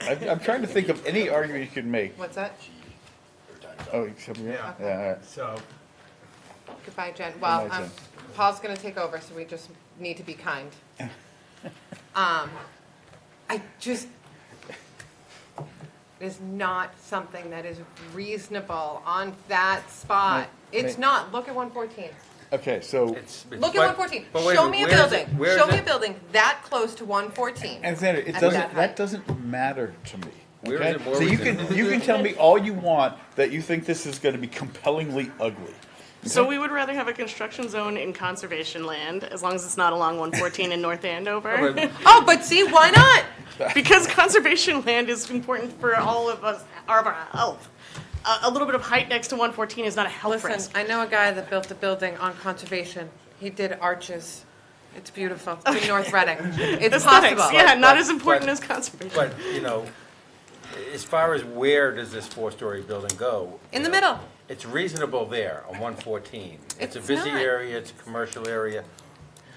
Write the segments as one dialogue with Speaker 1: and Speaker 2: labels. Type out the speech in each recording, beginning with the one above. Speaker 1: I'm, I'm trying to think of any argument you could make.
Speaker 2: What's that?
Speaker 1: Oh, except, yeah,
Speaker 3: Yeah.
Speaker 1: yeah, all right.
Speaker 3: So,
Speaker 2: Goodbye, Jen. Well,
Speaker 1: Goodbye,
Speaker 2: um,
Speaker 1: Jen.
Speaker 2: Paul's gonna take over, so we just need to be kind. Um, I just, it is not something that is reasonable on that spot.
Speaker 1: Ma-
Speaker 2: It's
Speaker 1: ma-
Speaker 2: not. Look at one fourteen.
Speaker 1: Okay, so,
Speaker 3: it's. it's-
Speaker 2: Look at
Speaker 3: but-
Speaker 2: one fourteen.
Speaker 3: but wait a
Speaker 2: Show
Speaker 3: minute,
Speaker 2: me a
Speaker 3: where is it?
Speaker 2: building,
Speaker 3: Where is
Speaker 2: show me a
Speaker 3: it?
Speaker 2: building that close to one fourteen.
Speaker 1: Alexander, it
Speaker 2: At
Speaker 1: doesn't,
Speaker 2: that
Speaker 1: that
Speaker 2: height.
Speaker 1: doesn't matter to me.
Speaker 3: Where
Speaker 1: okay?
Speaker 3: is it? Where
Speaker 1: So
Speaker 3: was
Speaker 1: you
Speaker 3: it?
Speaker 1: can, you can tell me all you want that you think this is gonna be compellingly ugly.
Speaker 4: So we would rather have a construction zone in conservation land, as long as it's not along 114 in North Andover.
Speaker 3: but-
Speaker 2: Oh, but see, why not?
Speaker 4: Because conservation land is important for all of us, our, our health. A, a little bit of height next to 114 is not a health
Speaker 2: Listen,
Speaker 4: risk.
Speaker 2: I know a guy that built a building on conservation. He did arches. It's beautiful, in North Reading. It's
Speaker 4: Aesthetics,
Speaker 2: possible.
Speaker 4: yeah, not
Speaker 3: But-
Speaker 4: as important
Speaker 3: but-
Speaker 4: as conservation.
Speaker 3: But, you know, as far as where does this four-story building go?
Speaker 2: In
Speaker 3: you
Speaker 2: the
Speaker 3: know,
Speaker 2: middle.
Speaker 3: It's reasonable there on one fourteen. It's a
Speaker 2: It's
Speaker 3: busy
Speaker 2: not.
Speaker 3: area, it's a commercial area.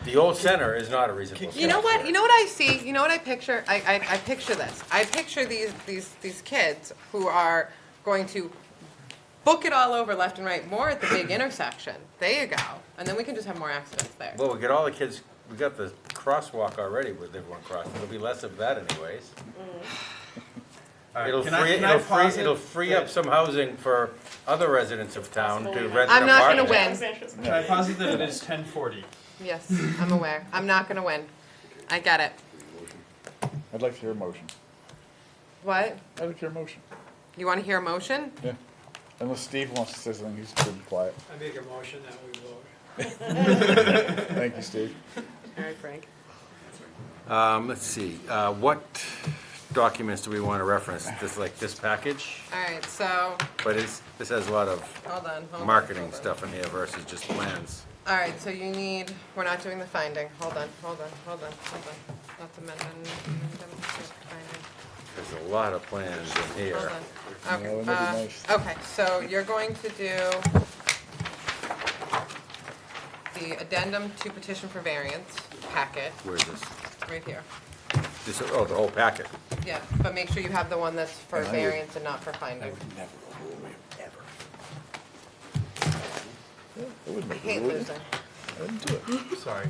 Speaker 3: The old center is not a reasonable.
Speaker 2: You know
Speaker 3: spot.
Speaker 2: what? You know what I see? You know what I picture? I, I, I picture this. I picture these, these, these kids who are going to book it all over left and right, more at the big intersection. There you go. And then we can just have more accidents there.
Speaker 3: Well, we got all the kids, we got the crosswalk already with everyone crossing. There'll be less of that anyways. It'll
Speaker 5: can I-
Speaker 3: free,
Speaker 5: can I
Speaker 3: it'll free,
Speaker 5: posit
Speaker 3: it'll free up
Speaker 5: that-
Speaker 3: some housing for other residents of town to rent an apartment.
Speaker 2: I'm not gonna win.
Speaker 5: Can I posit that it is ten forty?
Speaker 2: Yes, I'm aware. I'm not gonna win. I get it.
Speaker 1: I'd like to hear a motion.
Speaker 2: What?
Speaker 1: I'd like to hear a motion,
Speaker 2: You wanna hear a motion?
Speaker 1: yeah. Unless Steve wants to say something, he's pretty quiet.
Speaker 6: I make a motion that we vote.
Speaker 1: Thank you, Steve.
Speaker 4: All right, Frank.
Speaker 3: Um, let's see, uh, what documents do we want to reference? This, like, this package?
Speaker 2: All right, so,
Speaker 3: But it's, this has a lot of
Speaker 2: hold on, hold on.
Speaker 3: marketing
Speaker 2: hold on.
Speaker 3: stuff in here versus just plans.
Speaker 2: All right, so you need, we're not doing the finding. Hold on, hold on, hold on, hold on. Not the amendment, amendment, finding.
Speaker 3: There's a lot of plans in
Speaker 2: Hold
Speaker 3: here.
Speaker 2: on.
Speaker 1: No,
Speaker 2: Okay,
Speaker 1: that'd be nice.
Speaker 2: uh, okay, so you're going to do the addendum to petition for variance packet,
Speaker 3: Where's this?
Speaker 2: right here.
Speaker 3: This, oh, the whole packet.
Speaker 2: Yeah, but make sure you have the one that's for
Speaker 1: And I would-
Speaker 2: variance and not for finding.
Speaker 1: Never, ever. I wouldn't
Speaker 2: I
Speaker 1: make a
Speaker 2: hate
Speaker 1: rule.
Speaker 2: losing.
Speaker 1: I wouldn't do it.
Speaker 3: Sorry.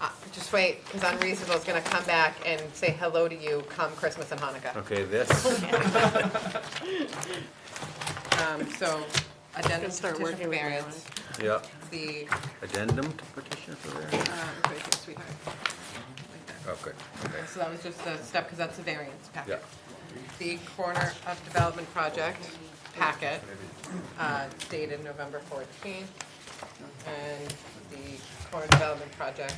Speaker 2: Uh, Just wait, because Unreasonable is gonna come back and say hello to you come Christmas and Hanukkah.
Speaker 3: Okay, this,
Speaker 2: Um, so addendum to
Speaker 4: start
Speaker 2: petition
Speaker 4: working
Speaker 2: for
Speaker 4: with my
Speaker 2: variance,
Speaker 3: yeah,
Speaker 2: the,
Speaker 3: addendum to petition for variance?
Speaker 4: Uh,
Speaker 2: um, right here, sweetheart. Like that.
Speaker 3: Oh, good, okay,
Speaker 2: So that was just the step, because that's the variance
Speaker 3: yeah.
Speaker 2: packet. The corner of development project packet uh, dated November 14th. And the corner development project,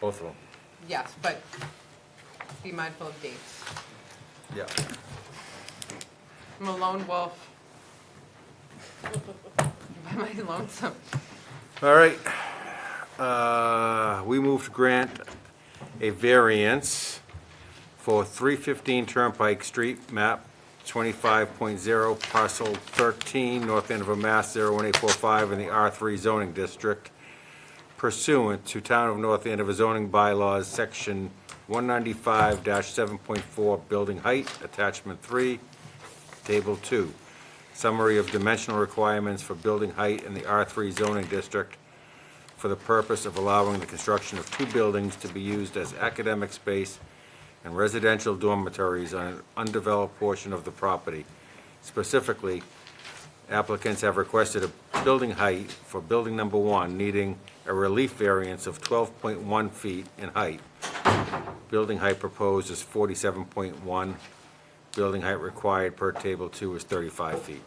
Speaker 3: Both of them,
Speaker 2: yes, but be mindful of dates.
Speaker 3: yeah.
Speaker 2: I'm a lone wolf. Am I lonesome?
Speaker 3: All right, uh, we move to grant a variance for 315 Turnpike Street, map 25.0, parcel 13, North Andover, Mass. 01845, in the R3 zoning district pursuant to Town of North Andover zoning bylaws, section 195-7.4, building height, attachment 3, Table 2, summary of dimensional requirements for building height in the R3 zoning district for the purpose of allowing the construction of two buildings to be used as academic space and residential dormitories on an undeveloped portion of the property. Specifically, applicants have requested a building height for building number one needing a relief variance of 12.1 feet in height. Building height proposed is 47.1. Building height required per table two is 35 feet.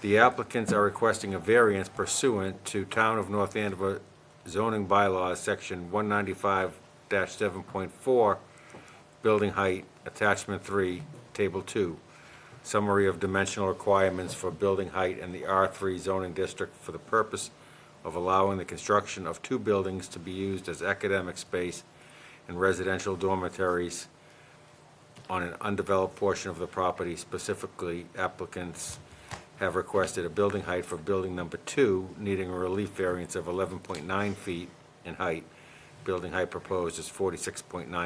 Speaker 3: The applicants are requesting a variance pursuant to Town of North Andover zoning bylaws, section 195-7.4, building height, attachment three, table two, summary of dimensional requirements for building height in the R3 zoning district for the purpose of allowing the construction of two buildings to be used as academic space and residential dormitories on an undeveloped portion of the property. Specifically, applicants have requested a building height for building number two, needing a relief variance of 11.9 feet in height. Building height proposed is 46.9